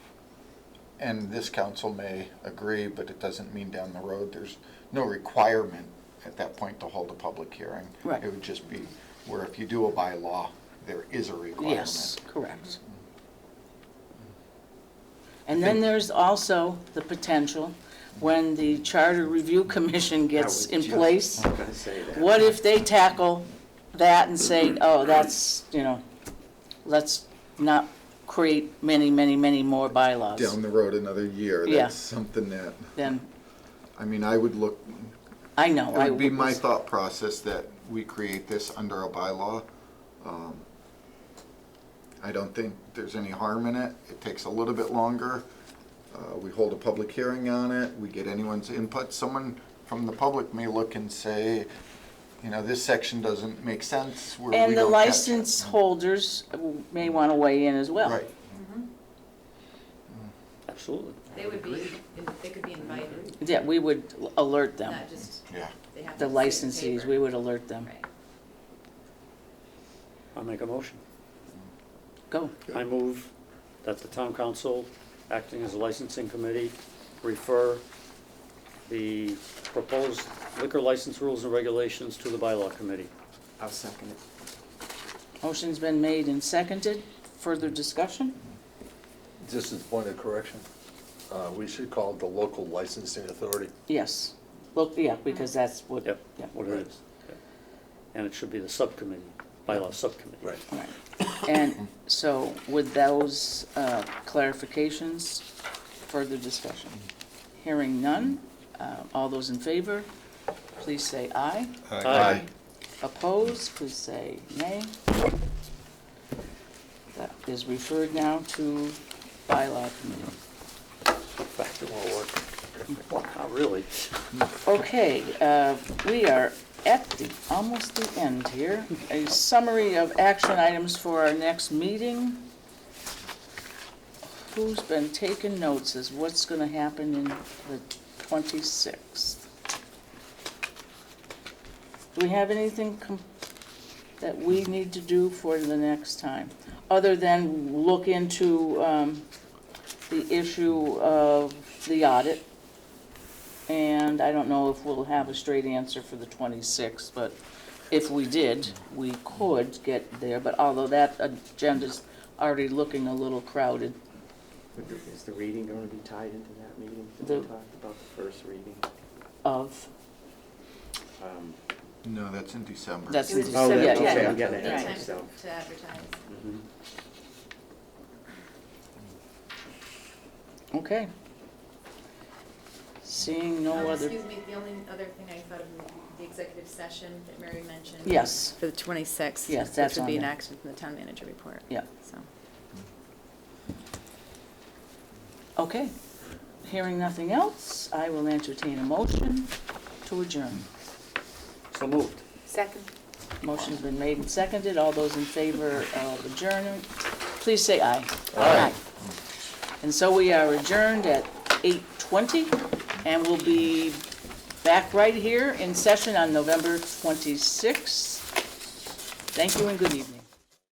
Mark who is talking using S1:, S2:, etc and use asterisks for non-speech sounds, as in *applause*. S1: and this council may agree, but it doesn't mean down the road, there's no requirement at that point to hold a public hearing.
S2: Right.
S1: It would just be where if you do a bylaw, there is a requirement.
S2: Yes, correct.
S1: Mm-hmm.
S2: And then there's also the potential, when the Charter Review Commission gets in place,
S1: Oh.
S3: I'm gonna say that.
S2: what if they tackle that
S1: *clears throat*
S2: and say, oh, that's, you know, let's not create many, many, many more
S1: Down
S2: bylaws?
S1: the road another year,
S2: Yeah.
S1: that's something that,
S2: Then,
S1: I mean, I would look,
S2: I know. I
S1: It would be my thought process that we create this under a bylaw. Um, I don't think there's any harm in it. It takes a little bit longer. Uh, We hold a public hearing on it. We get anyone's input. Someone from the public may look and say, you know, this section doesn't make sense. where we
S2: And the
S1: don't catch it."
S2: license holders may want to weigh in as well.
S1: Right.
S3: Absolutely.
S4: They would be, they could be invited,
S2: Yeah, we would alert them,
S4: not just,
S1: Yeah.
S4: they have
S2: the
S4: to sit in
S2: licensees,
S4: favor.
S2: we would alert them.
S4: Right.
S3: I'll make a motion.
S2: Go.
S3: I move that the town council, acting as a licensing committee, refer the proposed liquor license rules and regulations to the bylaw committee.
S5: I'll second it.
S2: Motion's been made and seconded. Further discussion?
S6: Just as a point of correction, uh, we should call it the local licensing authority.
S2: Yes. Look, yeah, because that's what.
S3: Yep,
S2: yeah.
S3: what it is. Yep. And it should be the subcommittee, bylaw subcommittee.
S6: Right.
S2: Right. And so with those uh, clarifications, further discussion. Hearing none, uh, all those in favor, please say aye.
S3: Aye.
S2: Opposed, please say nay. That is referred now to bylaw committee.
S3: Fact, it won't work. Wow, really?
S2: Mm-hmm. Okay, uh, we are at the, almost the end here. A summary of action items for our next meeting. Who's been taking notes is what's gonna happen in the twenty-sixth. Do we have anything com- that we need to do for the next time? Other than look into, um, the issue of the audit. And I don't know if we'll have a straight answer for the 26th, but if we did, we could get there. But although that agenda's already looking a little crowded.
S5: Would the- Is the reading going to be tied into that meeting? Did
S2: The-
S5: we talk about the first reading?
S2: Of,
S5: Um,
S1: No, that's in December.
S2: That's-
S4: It was
S5: Oh,
S4: December
S5: yeah,
S2: okay,
S4: tenth.
S2: I'm
S5: getting it,
S4: Yeah,
S5: okay,
S4: time
S5: so-
S4: To advertise.
S3: Mhm.
S2: okay. Seeing no
S4: Um,
S2: other,
S4: Excuse me, the only other thing I thought of, was the executive session that Mary mentioned.
S2: yes,
S4: For the twenty-sixth.
S2: Yes, that's on
S4: Which would be an
S2: there.
S4: action from the town manager report.
S2: Yeah.
S4: So,
S2: okay. Hearing nothing else, I will entertain a motion to adjourn.
S3: So moved.
S7: Second.
S2: Motion's been made and seconded. All those in favor of adjournment, please say aye.
S6: Aye.
S2: And so we are adjourned at 8:20, and we'll be back right here in session on November 26th. Thank you and good evening.